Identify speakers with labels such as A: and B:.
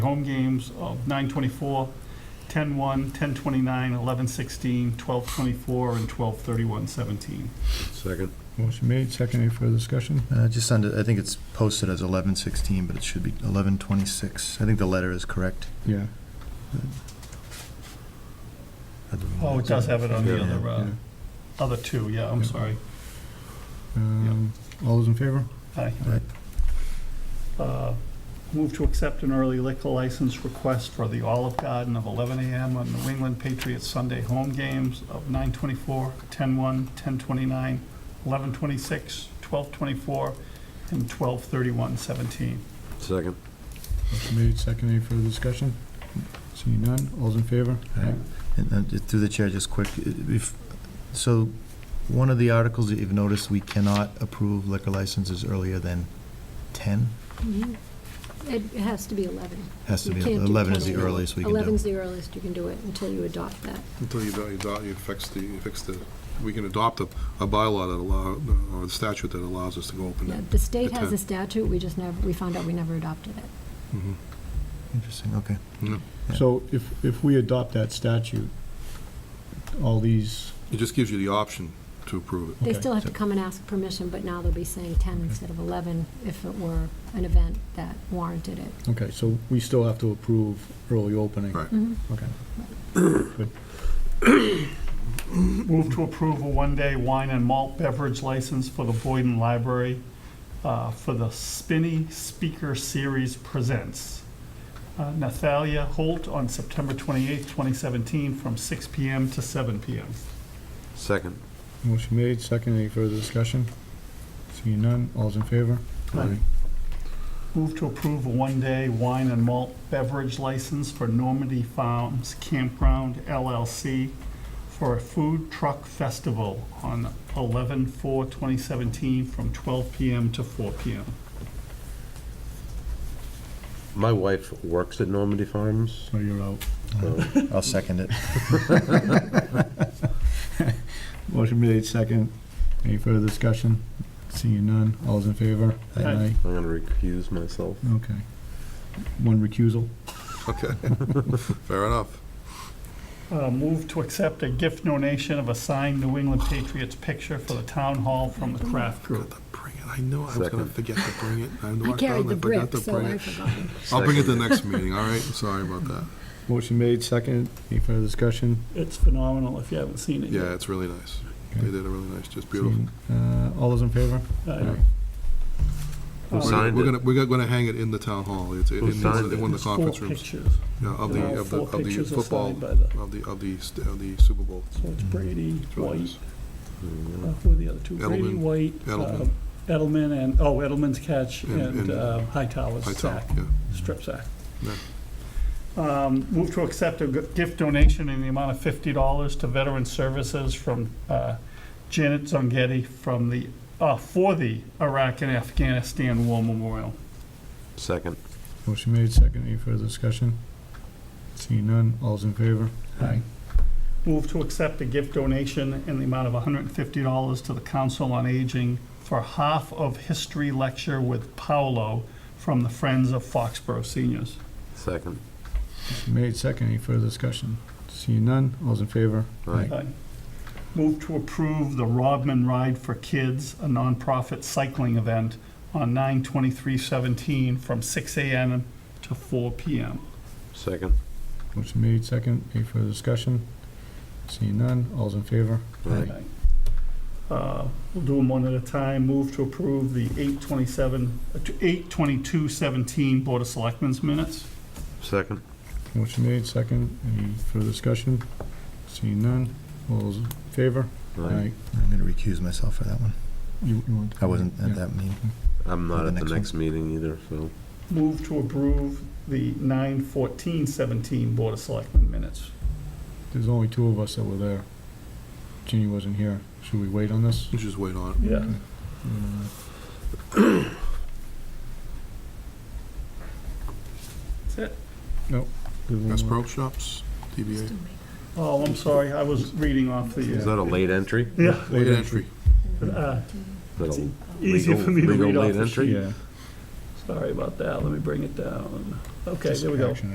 A: home games of 9/24, 10/1, 10/29, 11/16, 12/24, and 12/31/17.
B: Second.
C: Motion made, second, any further discussion?
D: Uh, Just under, I think it's posted as 1116, but it should be 1126. I think the letter is correct.
C: Yeah.
A: Oh, it does have it on the other, uh,
C: yeah.
A: other two, yeah, I'm
C: Yeah.
A: sorry.
C: Um, All those in favor?
A: Aye.
D: Right.
A: Uh, Move to accept an early liquor license request for the Olive Garden of 11 a.m. on New England Patriots Sunday home games of 9:24, 10:01, 10:29, 11:26, 12:24, and 12:31:17.
B: Second.
C: Motion made, second, any further discussion? Seeing none, all's in favor?
D: Aye. And uh, just through the chair, just quick, i- if, so one of the articles that you've noticed, we cannot approve liquor licenses earlier than 10?
E: Mhm. It has to be 11.
D: Has to
E: You
D: be,
E: can't do
D: 11 is the
E: 21.
D: earliest we can do.
E: 11's the earliest you can do it until you adopt that.
B: Until you, you adopt, you fix the, you fix the, we can adopt a, a bylaw that allow, or a statute that allows us to go open
E: Yeah,
B: it.
E: The state has
B: Okay.
E: a statute, we just never, we found out we never adopted it.
B: Mhm.
D: Interesting, okay. Yeah.
C: So if, if we adopt that statute, all these,
B: It just gives you the option to approve it.
E: They
C: Okay.
E: still have to come and ask permission, but now they'll be saying 10 instead of 11 if it were an event that warranted it.
C: okay, so we still have to approve early opening?
B: Right.
E: Mm-hmm.
C: Okay.
A: Move to approve a one-day wine and malt beverage license for the Boyden Library uh, for the Spinny Speaker Series Presents. Uh, Nathalia Holt on September 28th, 2017, from 6 PM to 7 PM.
B: Second.
C: Motion made, second, any further discussion? Seeing none, all's in favor?
A: Aye. Move to approve a one-day wine and malt beverage license for Normandy Farms Campground LLC for a food truck festival on 11/4/2017, from 12 PM to 4 PM.
F: My wife works at Normandy Farms.
C: So you're out.
F: so-
D: I'll second it.
C: Motion made, second, any further discussion? Seeing none, all's in favor?
A: Aye.
F: I'm gonna recuse myself.
C: Okay. One recusal.
B: Okay. Fair enough.
A: Uh, Move to accept a gift donation of a signed New England Patriots picture for the town hall from the Kraft
B: Forgot
A: Group.
B: to bring it. I knew I was gonna
F: Second.
B: forget to bring it.
E: I
B: walked
E: carried
B: down,
E: the
B: I
E: brick,
B: forgot to
E: so
B: bring
E: I
B: it.
E: forgot.
B: I'll bring it the next meeting, all right? Sorry about that.
C: Motion made, second. Any further discussion?
A: It's phenomenal if you haven't seen it
B: Yeah,
A: yet.
B: it's really nice.
C: Okay.
B: They did a really nice, just beautiful.
C: Uh, All those in favor?
A: Uh,
F: Who
A: uh,
B: We're
F: signed
B: gonna- We're
F: it?
B: gonna, we're gonna hang it in the town hall. It's in,
F: Who
B: in
F: signed it?
B: one of the
A: it's uh, four
B: conference rooms.
A: pictures.
B: Yeah, of the,
A: All
B: of the,
A: four
B: of the
A: pictures are
B: football,
A: signed by the-
B: of the, of the, st- of the Super Bowl.
A: So it's Brady,
B: It's really
A: White,
B: nice.
A: uh, who are the other two? Brady,
B: Edelman.
A: White, uh,
B: Edelman.
A: Edelman, and, oh, Edelman's catch
B: And-
A: and
B: and-
A: uh, Hightower's
B: I tell,
A: sack,
B: yeah.
A: strip sack.
B: Yeah.
A: Um, Move to accept a g- gift donation in the amount of $50 to Veteran Services from uh, Janet Zongetti from the, uh, for the Iraq and Afghanistan War Memorial.
F: Second.
C: Motion made, second. Any further discussion? Seeing none, all's in favor?
A: Aye. Move to accept a gift donation in the amount of $150 to the Council on Aging for half of history lecture with Paolo from the Friends of Foxborough Seniors.
F: Second.
C: Motion made, second. Any further discussion? Seeing none, all's in favor?
F: Aye.
A: Aye. Move to approve the Rodman Ride for Kids, a nonprofit cycling event on 9/23/17 from 6 a.m. to 4 p.m.
F: Second.
C: Motion made, second. Any further discussion? Seeing none, all's in favor?
F: Aye.
A: Uh, We'll do them one at a time. Move to approve the 8/27, uh, 8/22/17 Board of Selectmen's minutes.
F: Second.
C: Motion made, second. Any further discussion? Seeing none, all's in favor?
F: Aye.
D: I'm going to recuse myself for that one.
C: You you want?
D: I wasn't
C: Yeah.
D: at that meeting.
F: I'm
D: For
F: not
D: the
F: at the
D: next
F: next meeting either, so.
A: Move to approve the 9/14/17 Board of Selectmen minutes.
C: There's only two of us that were there. Ginny wasn't here. Should we wait on this?
B: You just wait on it.
A: Yeah.
C: Uh,
A: That's it.
C: there's one
B: Best
C: more.
B: Pro Shops, DBA.
E: Still made
A: Oh, I'm sorry, I was reading off the. uh,
F: Is that a late entry?
A: Yeah,
B: Late entry.
E: that.
A: uh,
F: Is that a
A: easy
F: legal-
A: for me to
F: legal
A: read off
F: late
A: the
F: entry?
A: sheet.
C: Yeah.
A: So Sorry about that, let me bring it down. Okay,
D: Just
A: there we go.
D: action